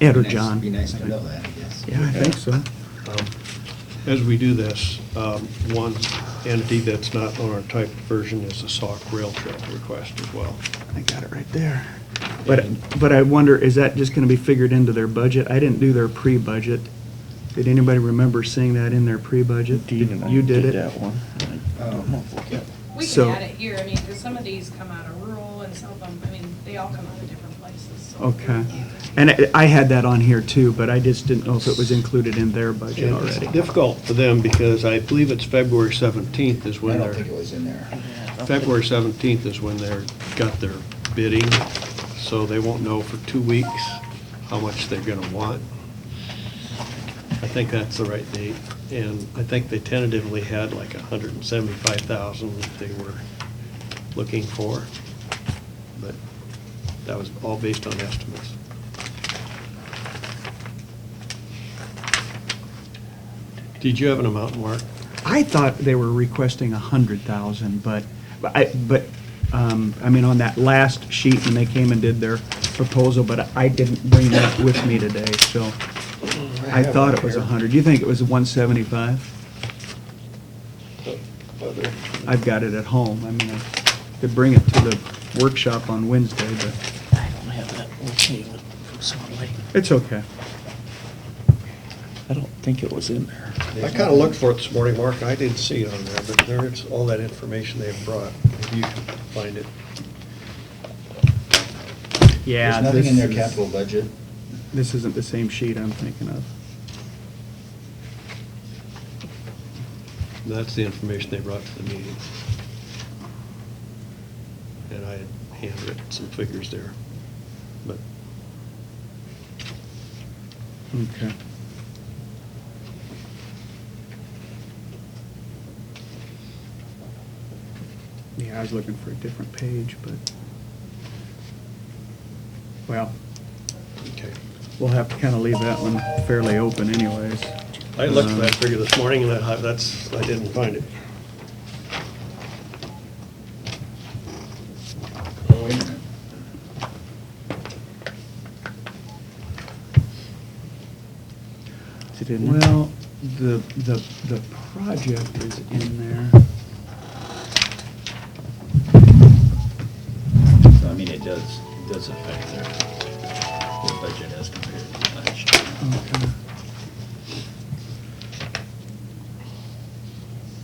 Ed or Nice- John. Be nice to know that, I guess. Yeah, I think so. Um, As we do this, um, one entity that's not on our typed version is the Sauk Rail Trail request as well. I got it right there. But, but I wonder, is that just gonna be figured into their budget? I didn't do their pre-budget. Did anybody remember seeing that in their pre-budget? Dean You did it? that one. I Um, don't know if we'll get- We can So- add it here, I mean, because some of these come out of rural and some of them, I mean, they all come out of different places. so- Okay. And I- I had that on here too, but I just didn't know if it was included in their budget And It's already. difficult for them because I believe it's February 17th is I when don't think it they're, was in there. February 17th is when they're, got their bidding, so they won't know for two weeks how much they're going to want. I think that's the right date, and I think they tentatively had like 175,000 that they were looking for, but that was all based on estimates. Did you have an amount, Mark? I thought they were requesting a hundred thousand, but, but I, but, um, I mean, on that last sheet when they came and did their proposal, but I didn't bring that with me today, so I have thought one it was a here. hundred. Do you think it was one seventy-five? Whether- I've got it at home. I mean, I could bring it to the workshop on Wednesday, but I don't have that with me with someone like, it's okay. I don't think it was in there. I kind of looked for it this morning, Mark, and I didn't see it on there, but there is all that information they've brought, if you can find it. Yeah. There's nothing in their this is- capital budget. This isn't the same sheet I'm thinking of. That's the information they brought to the meeting. And I had handwritten some figures there, but Okay. Yeah, I was looking for a different page, but, well, okay. we'll have to kind of leave that one fairly open anyways. Um, I looked for that figure this morning, and I, that's, I didn't find it. Oh, wait a minute. Is it in there? Well, the, the, the project is in there. So I mean, it does, it does affect their, their budget as compared to last year. Okay.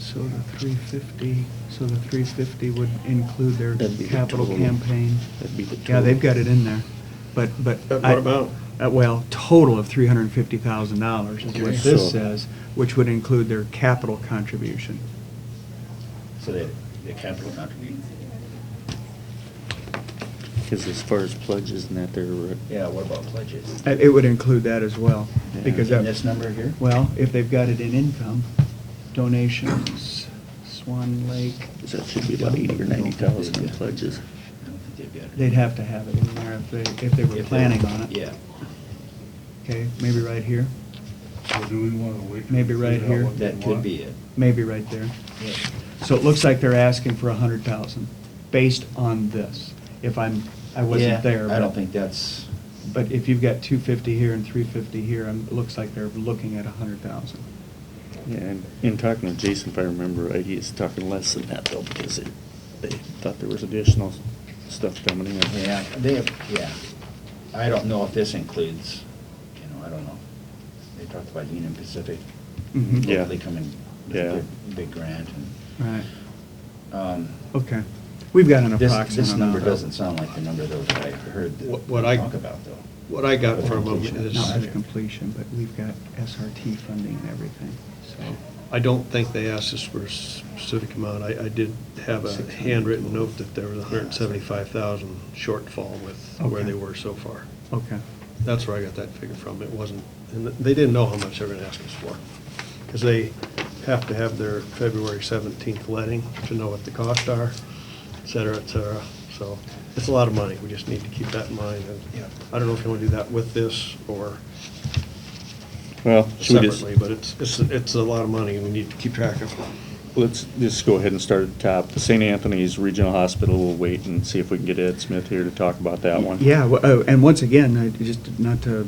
So the three fifty, so the three fifty would include their That'd be the capital total. campaign? That'd be the Yeah, they've got total. it in there, but, but. But what I- about? uh, Well, total of three hundred and fifty thousand dollars is what Okay. this So- says, which would include their capital contribution. So the, the capital contribution, Because as far as plugs, isn't that their, uh, yeah, what about pledges? Uh, It would include that as well, Yeah. because In that. this number here? Well, if they've got it in income, donations, Swan Lake, so that should be about eighty or ninety thousand in pledges. I don't think they've got it. They'd have to have it in there if they, if they If were they- planning on it. Yeah. Okay, maybe right here, So do we want to wait? Maybe right Figure out here. what they That could want? be it. maybe right there. Yeah. So it looks like they're asking for a hundred thousand, based on this. If I'm, I Yeah, wasn't there. I but- don't think that's, But if you've got two fifty here and three fifty here, um, it looks like they're looking at a hundred thousand. Yeah, and in talking to Jason, if I remember right, he is talking less than that though, because it, they thought there was additional stuff coming in. yeah, they, yeah. I don't know if this includes, you know, I don't know. They talked about Union Pacific. Mhm. Yeah. They come in with Yeah. a big, big grant and, Right, um, okay. Oh, We've got an This, approximate this number amount. doesn't sound like the number though that I heard that What- what I- talk about though. What I got from them is, Not at completion, but we've got SRT funding and everything, so. I don't think they asked us for a specific amount. I, I did have a handwritten note that there was hundred and seventy-five thousand shortfall with where Okay. they were so far. Okay, That's where I got that figure from. It wasn't, and they didn't know how much they were gonna ask us for. Because they have to have their February seventeenth letting to know what the costs are, et cetera, et cetera. So it's a lot of money. We just need to keep that in mind. And I don't know if you want to do that with this or Well, should we just, separately, but it's, it's, it's a lot of money. and We need to keep track of let's just go ahead and start at the top. The St. Anthony's Regional Hospital, we'll wait and see if we can get Ed Smith here to talk about that one. yeah, well, oh, and once again, I just, not to